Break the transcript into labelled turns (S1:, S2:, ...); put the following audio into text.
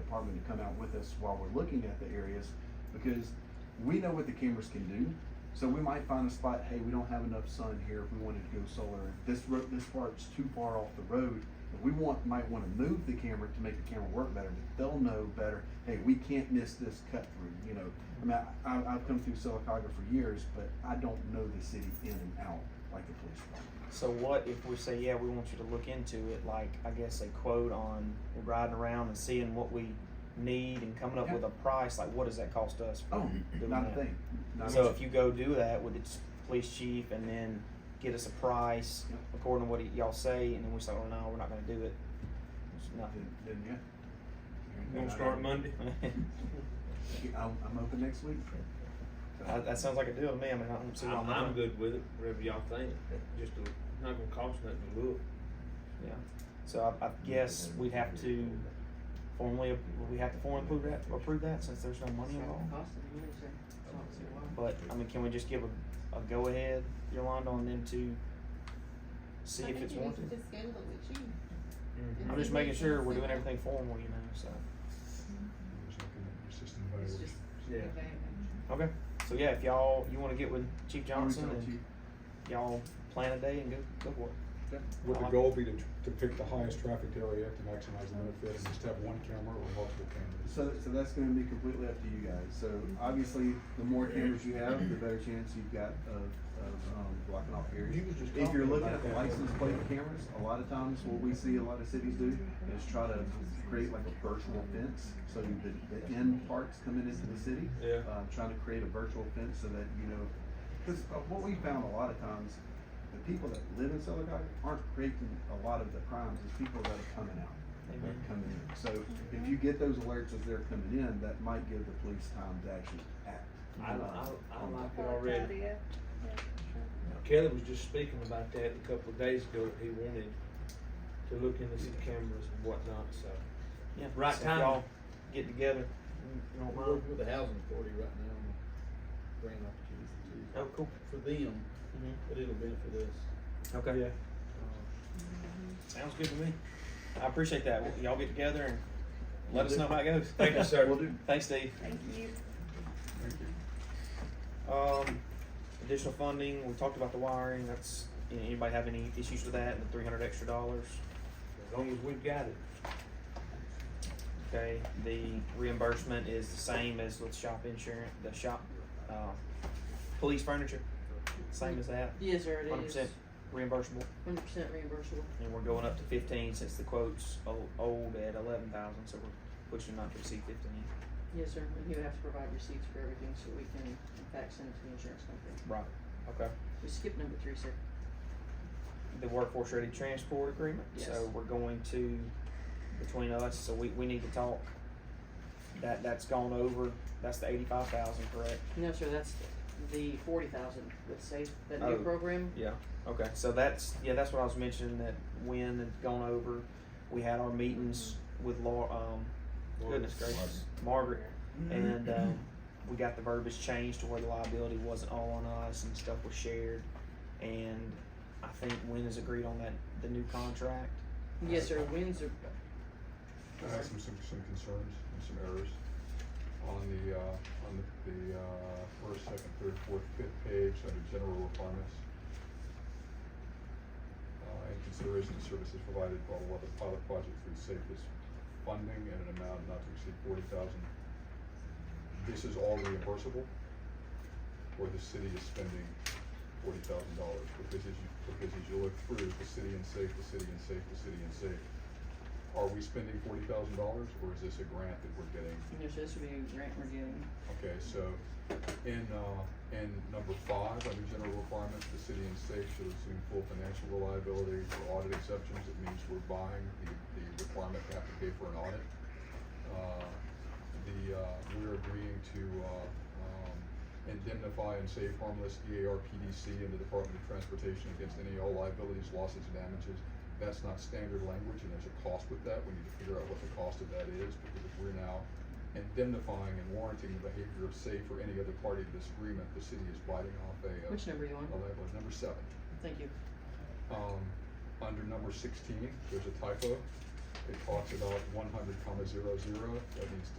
S1: department to come out with us while we're looking at the areas, because we know what the cameras can do. So we might find a spot, hey, we don't have enough sun here, if we wanted to go solar, this road, this part's too far off the road. But We want, might wanna move the camera to make the camera work better, but they'll know better, hey, we can't miss this cut through, you know? I mean, I, I- I've come through Silicaga for years, but I don't know the city in and out like the police department.
S2: So what if we say, yeah, we want you to look into it, like, I guess a quote on riding around and seeing what we need and coming up
S1: Yeah.
S2: with a price, like what does that cost us? for
S1: Oh,
S2: doing
S1: not a
S2: that?
S1: thing. Not a
S2: So
S1: thing.
S2: if you go do that with the police chief and then get us a price
S1: Yep.
S2: according to what y'all say, and then we say, oh no, we're not gonna do it. It's nothing.
S1: Then, then, yeah.
S3: Gonna start Monday.
S1: I'm, I'm open next week.
S2: That, that sounds like a deal to me, I mean, I don't see why
S3: I'm,
S2: not.
S3: I'm good with it, whatever y'all think, just to, not gonna cost nothing to look.
S2: So I, I guess we'd have to formally, would we have to formally approve that, approve that since there's no money involved? But, I mean, can we just give a, a go-ahead, Yolanda, on them to see if it's
S4: I think you
S2: warranted?
S4: need to just schedule it with you.
S3: Mhm.
S2: I'm just making sure we're doing everything formal, you know, so.
S4: It's just
S3: Yeah.
S4: advantage.
S2: Okay, so yeah, if y'all, you wanna get with Chief
S1: I'll reach
S2: Johnson
S1: out to
S2: and
S1: you.
S2: y'all plan a day and go, go for it.
S5: Would the goal be to, to pick the highest traffic area to maximize the benefit and just have one camera or multiple cameras?
S1: So, so that's gonna be completely up to you guys. So obviously, the more cameras you have, the better chance you've got of, of, um, blocking off areas. If you're looking at the license plate cameras, a lot of times what we see a lot of cities do is try to create like a virtual fence. So the, the end parts coming into the city,
S3: Yeah.
S1: uh, trying to create a virtual fence so that, you know, because what we found a lot of times, the people that live in Silicon aren't creating a lot of the crimes, it's people that are coming out, that
S2: Amen.
S1: are coming in. So if you get those alerts as they're coming in, that might give the police time to actually act. Um,
S3: I, I, I like it already.
S4: Yeah,
S3: Kelly was just speaking about that a couple of days ago, that he wanted to look into some cameras and whatnot, so.
S2: Yeah,
S3: Right
S2: so if
S3: timing.
S2: y'all Get together, you don't
S6: We're
S2: mind.
S6: working with the housing authority right now on grant opportunities
S2: Oh, cool.
S6: for them,
S2: Mhm.
S6: but it'll benefit us.
S2: Okay. Yeah. Sounds good to me. I appreciate that. Y'all get together and let us know how it goes.
S3: Thank you, sir.
S1: Will do.
S2: Thanks, Steve.
S4: Thank you.
S2: Um, additional funding, we talked about the wiring, that's, anybody have any issues with that, and the three hundred extra dollars?
S3: As long as we've got it.
S2: Okay, the reimbursement is the same as with shop insurance, the shop, uh, police furniture, same as that,
S7: Yes, sir, it
S2: hundred
S7: is.
S2: percent reimbursable,
S7: Hundred percent reimbursable.
S2: and we're going up to fifteen since the quote's old, old at eleven thousand, so we're pushing not to exceed fifteen.
S7: Yes, sir, and he would have to provide receipts for everything so we can in fact send it to the insurance company.
S2: Right. Okay.
S7: We skipped number three, sir.
S2: the workforce ready transport agreement,
S7: Yes.
S2: so we're going to, between us, so we, we need to talk. That, that's gone over, that's the eighty-five thousand, correct?
S7: No, sir, that's the forty thousand, let's say, that
S2: Oh.
S7: new program.
S2: Yeah. Okay, so that's, yeah, that's what I was mentioning, that when it's gone over, we had our meetings with Laura, um, goodness gracious, Margaret, and, um, we got the verbiage changed to where the liability wasn't all on us and stuff was shared. And I think Wynn has agreed on that, the new contract,
S7: Yes, sir, wins are.
S5: I have some, some, some concerns and some errors on the, uh, on the, the, uh, first, second, third, fourth, fifth page under general requirements. Uh, in consideration of services provided by what the pilot project for the safest funding and an amount not to exceed forty thousand. This is all reimbursable, or the city is spending forty thousand dollars, because as you, because as you look through, the city and safe, the city and safe, the city and safe. Are we spending forty thousand dollars, or is this a grant that we're getting?
S7: Yes, sir, this would be a grant we're giving.
S5: Okay, so in, uh, in number five, under general requirements, the city and state should assume full financial reliability for audit exceptions. It means we're buying the, the requirement to have to pay for an audit. Uh, The, uh, we're agreeing to, uh, um, indemnify and save harmless E EARPDC and the Department of Transportation against any and all liabilities, losses, and damages. That's not standard language, and there's a cost with that. We need to figure out what the cost of that is, because if we're now indemnifying and warranting the behavior of safe or any other party to this agreement, the city is biting off a, uh,
S7: Which number you on?
S5: a leg- well, number seven.
S7: Thank you.
S5: Um, under number sixteen, there's a typo. It talks about one hundred comma zero zero, that means